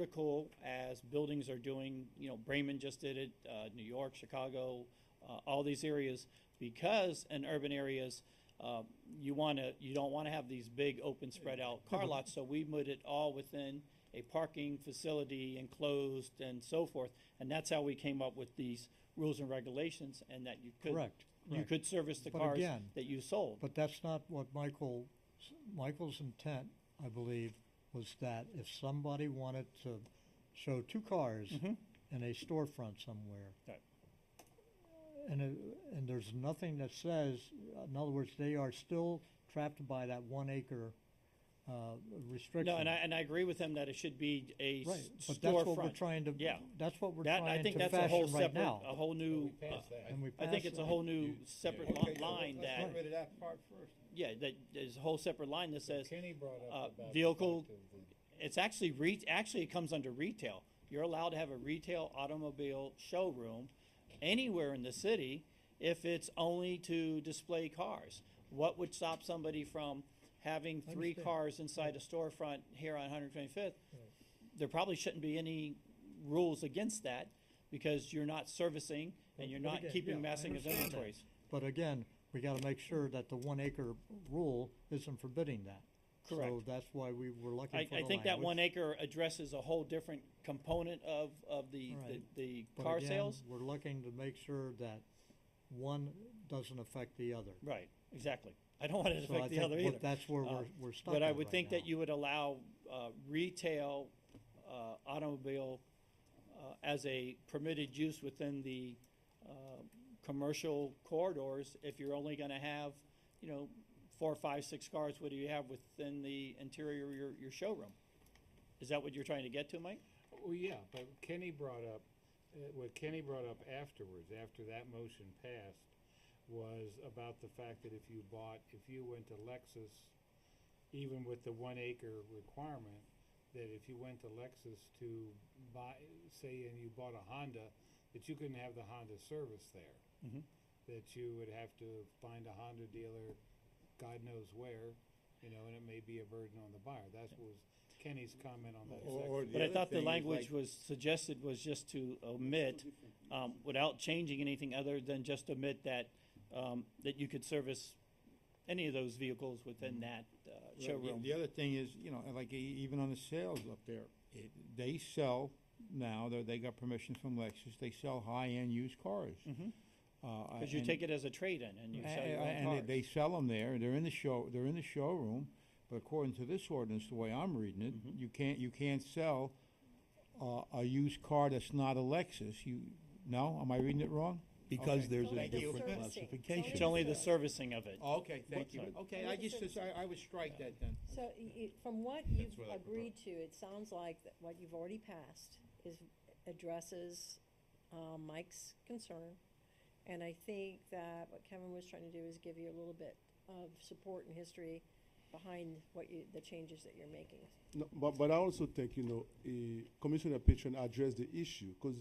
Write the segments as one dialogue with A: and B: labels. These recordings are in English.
A: vertical as buildings are doing, you know, Bremen just did it, uh, New York, Chicago, uh, all these areas, because in urban areas, uh, you wanna, you don't wanna have these big open spread out car lots, so we put it all within a parking facility enclosed and so forth, and that's how we came up with these rules and regulations, and that you could.
B: Correct,
A: You
B: correct.
A: could service the
B: But
A: cars
B: again,
A: that you sold.
B: But that's not what Michael, Michael's intent, I believe, was that if somebody wanted to show two cars in a storefront somewhere.
A: Mm-hmm. Right.
B: And, it- and there's nothing that says, in other words, they are still trapped by that one acre, uh, restriction.
A: No, and I, and I agree with him that it should be a
B: Right,
A: s-
B: but that's what we're
A: storefront.
B: trying to,
A: Yeah.
B: that's what we're
A: That, I
B: trying
A: think
B: to
A: that's a whole
B: fashion right
A: separate,
B: now.
A: a whole new, uh,
C: We passed that.
B: And we
A: I think
B: pass
A: it's
B: it.
A: a whole new separate
C: Okay,
A: li- line
C: let's
A: that,
C: Get rid of that part first.
A: yeah, that, there's a whole separate line that says,
C: Kenny brought
A: uh,
C: up about. the
A: vehicle-
C: fact of the-
A: it's actually re, actually it comes under retail. You're allowed to have a retail automobile showroom anywhere in the city if it's only to display cars. What would stop somebody from having three
B: Understand.
A: cars inside a storefront here on 125th? There probably shouldn't be any rules against that because you're not servicing and you're
B: But
A: not
B: again,
A: keeping
B: yeah, I
A: massing of
B: understand that.
A: inventories.
B: But again, we gotta make sure that the one acre rule isn't forbidding that. So
A: Correct.
B: that's why we were looking
A: I,
B: for the
A: I
B: language.
A: think that one acre addresses a whole different component of, of the, the,
B: Right.
A: the
B: But
A: car
B: again,
A: sales.
B: We're looking to make sure that one doesn't affect the other.
A: Right, exactly. I don't want it to
B: So I
A: affect the
B: think
A: other
B: what-
A: either.
B: that's where
A: Uh,
B: we're, we're stuck
A: But I
B: at
A: would
B: right
A: think that
B: now.
A: you would allow, uh, retail, uh, automobile, uh, as a permitted use within the, uh, commercial corridors if you're only gonna have, you know, four, five, six cars, what do you have within the interior of your, your showroom? Is that what you're trying to get to, Mike?
D: Well, yeah, but Kenny brought up, uh, what Kenny brought up afterwards, after that motion passed, was about the fact that if you bought, if you went to Lexus, even with the one acre requirement, that if you went to Lexus to buy, say, and you bought a Honda, that you couldn't have the Honda service there.
C: Mm-hmm.
A: Mhm.
D: That you would have to find a Honda dealer, God knows where, you know, and it may be a burden on the buyer. That was Kenny's comment on that
C: Or-
D: section.
C: or
A: But I
C: other
A: thought the
C: thing is,
A: language
C: like-
A: was suggested was just to omit, um, without changing anything other than just omit that, um, that you could service any of those vehicles within that, uh,
C: Mm-hmm. the-
A: showroom.
C: The other thing is, you know, like e- even on the sales up there, it, they sell now, they, they got permission from Lexus, they sell high-end used cars.
A: Mhm.
C: Cause
A: Cause you take it as a trade-in and you
C: A-
A: sell
C: a-
A: your own
C: And
A: cars.
C: they- they sell them there, they're in the show, they're in the showroom, but according to this ordinance, the way I'm reading it,
A: Mm-hmm.
C: you can't, you can't sell uh, a used car that's not a Lexus, you, no, am I reading it wrong?
E: Because
C: Okay.
E: there's a
C: Thank you.
E: different
F: Servicing.
E: classification.
A: It's only the servicing of it.
C: Okay,
A: thank you.
C: okay,
F: I just-
C: I, I would strike that then.
F: So, y- y- from what you've
C: what I
F: agreed to, it sounds like that what you've already passed is, addresses, um, Mike's concern. And I think that what Kevin was trying to do is give you a little bit of support and history behind what you, the changes that you're making.
G: No, but, but I also think, you know, eh, Commissioner Patron addressed the issue because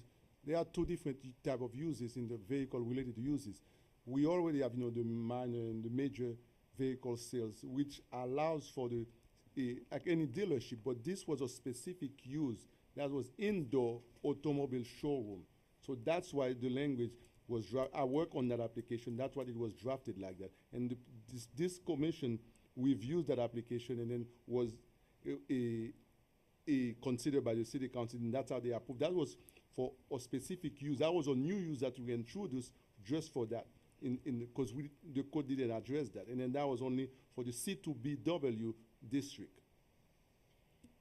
G: there are two different type of uses in the vehicle related uses. We already have, you know, the minor and the major vehicle sales, which allows for the, eh, like any dealership, but this was a specific use that was indoor automobile showroom. So that's why the language was dra- I work on that application. That's why it was drafted like that. And the, this, this commission reviewed that application and then was uh, uh, uh, considered by the city council, and that's how they approved. That was for a specific use. That was a new use that we introduced just for that. In in because we the code didn't address that, and then that was only for the C2BW district.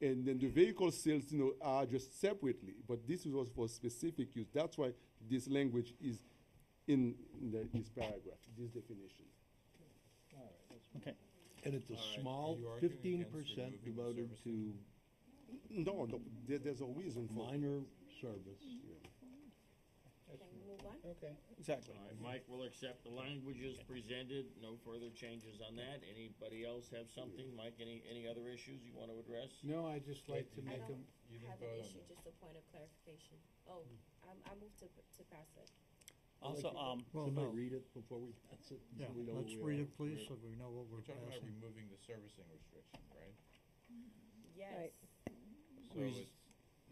G: And then the vehicle sales, you know, are just separately, but this was for specific use. That's why this language is in the, this paragraph, this definition.
A: Okay.
E: And it's
H: All
E: a
H: right,
E: small
H: you arguing against
E: fifteen percent
H: removing the
E: devoted to
H: servicing?
G: No, no, there, there's a reason for.
E: minor service.
F: Can we move on?
D: Okay.
A: Exactly.
H: All right, Mike will accept the languages presented, no further changes on that. Anybody else have something? Mike, any, any other issues you want to address?
D: No, I'd just like to
H: I
D: make
I: don't-
D: them.
I: I have an issue, just a point of clarification. Oh, I'm, I moved to, to pass it.
A: Also, um,
B: Well,
E: Somebody
B: no.
E: read it before we pass it.
B: Yeah,
E: so we know what
B: let's
E: we
B: read
E: are-
B: it please, so
E: we're-
B: we know what we're
H: We're talking about
B: passing.
H: removing the servicing restriction, right?
I: Yes.
F: Right.
H: So
A: Res-
H: it's